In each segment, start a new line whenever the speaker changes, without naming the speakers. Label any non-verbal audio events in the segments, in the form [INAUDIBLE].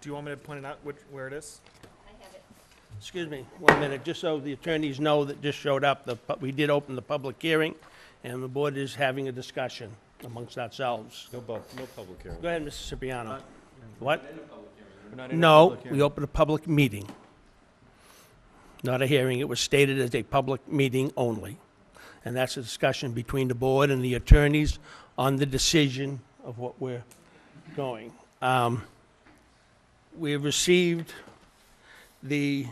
Do you want me to point it out which, where it is?
Excuse me, one minute, just so the attorneys know that just showed up, the, pu- we did open the public hearing, and the board is having a discussion amongst ourselves.
No, bu- no public hearing.
Go ahead, Mr. Cipriano. What?
We're not in a
No,
public
we
hearing.
opened a public meeting, not a hearing. It was stated as a public meeting only. And that's a discussion between the board and the attorneys on the decision of what we're going. Um, We have received the,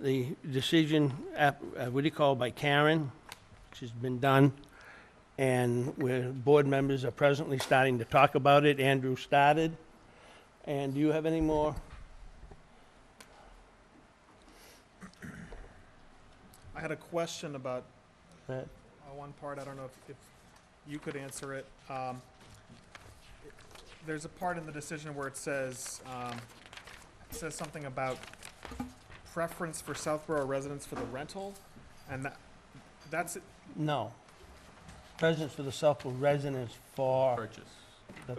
the decision, app- uh, what do you call, it, by Karen, which has been done. And where board members are presently starting to talk about it. Andrew started. And do you have any more?
I had a question about
that-
uh, one part, I don't know if, if you could answer it. Um, it- There's a part in the decision where it says, um, it says something about preference for Southborough residents for the rental, and that, that's, it.
No. Presence for the Southwood residents for
Purchase,
the,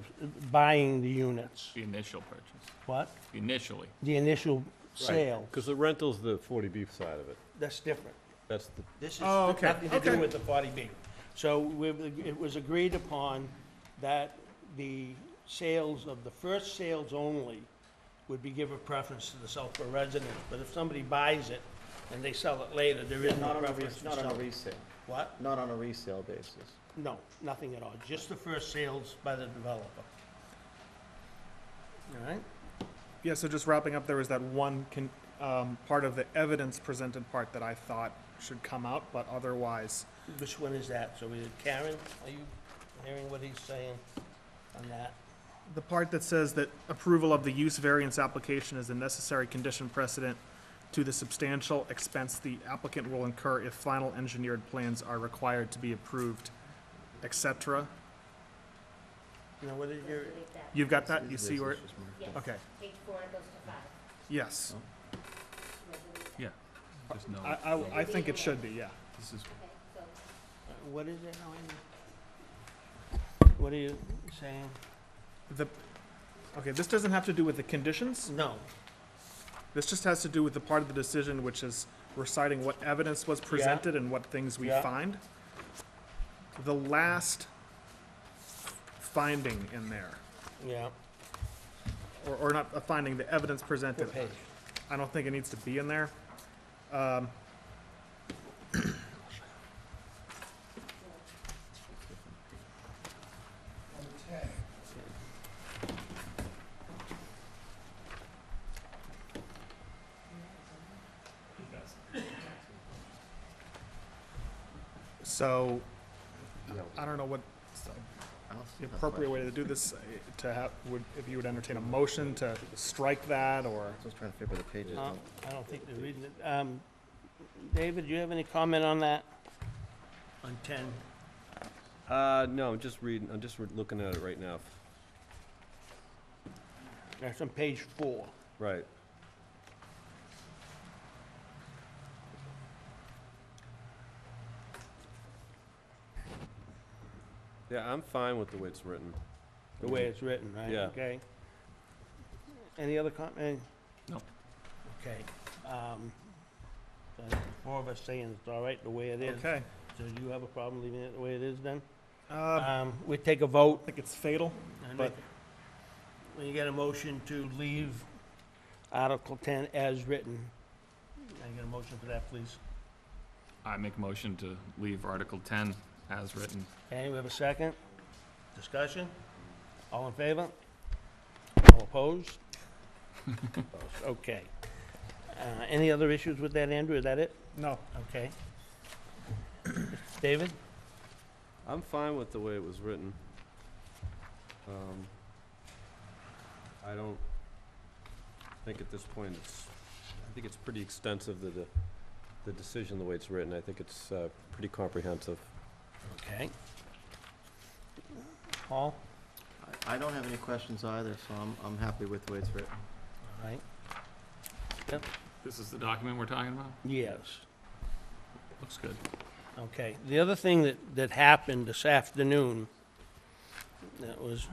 buying the units.
the initial purchase,
What?
initially.
The initial sale.
Because the rental's the 40B side of it.
That's different.
That's the,
This is
Oh, okay,
nothing to do
okay.
with the 40B. So we- it was agreed upon that the sales of, the first sales only would be given preference to the Southwood residents. But if somebody buys it and they sell it later, there is no
Not on a,
preference
res-
for
not on a
Southwood.
resale,
What?
not on a resale basis.
No, nothing at all, just the first sales by the developer. All right?
yeah, so just wrapping up, there was that one con, um, part of the evidence presented part that I thought should come out, but otherwise,
Which one is that? So we, Karen, are you hearing what he's saying on that?
The part that says that approval of the use variance application is a necessary condition precedent to the substantial expense the applicant will incur if final engineered plans are required to be approved, et cetera.
You know, what is your,
You've got that? You see where, it-
Yes,
okay,
page four goes to five.
yes.
Resolution.
Yeah. There's no.
I, I, I think it should be, yeah.
This is
Okay, so
what is it, Ellen? What are you saying?
The, okay, this doesn't have to do with the conditions.
No,
This just has to do with the part of the decision which is reciting what evidence was presented and what things we
Yeah.
find. The last finding in there.
yeah,
or, or not a finding, the evidence presented.
what page?
I don't think it needs to be in there. Um, So, I don't know what the appropriate way to do this, uh, to have, would, if you would entertain a motion to strike that, or?
I was trying to figure the pages.
Huh? Uh, I don't think they're reading it. Um, David, do you have any comment on that? On ten?
uh, no, I'm just reading, I'm just re- looking at it right now.
That's on page four.
Right. Yeah, I'm fine with the way it's written.
the way it's written, right?
Yeah.
Okay. Any other comment?
No.
Okay. um, so the Four of us saying it's all right the way it is.
Okay,
So do you have a problem leaving it the way it is then?
uh, I
Um, we take a vote,
think it's fatal.
and
But-
when you get a motion to leave Article ten as written, I get a motion for that, please.
I make a motion to leave Article ten as written.
Okay, we have a second? Discussion? All in favor? All opposed? Opposed, [LAUGHS] Okay. Uh, any other issues with that, Andrew? Is that it?
No,
Okay. David?
I'm fine with the way it was written. Um, I don't think at this point it's, I think it's pretty extensive, the, the- the decision, the way it's written. I think it's uh, pretty comprehensive.
Okay. Paul?
I I don't have any questions either, so I'm, I'm happy with the way it's written.
All right.
This is the document we're talking about?
Yes.
Looks good.
Okay. The other thing that, that happened this afternoon that was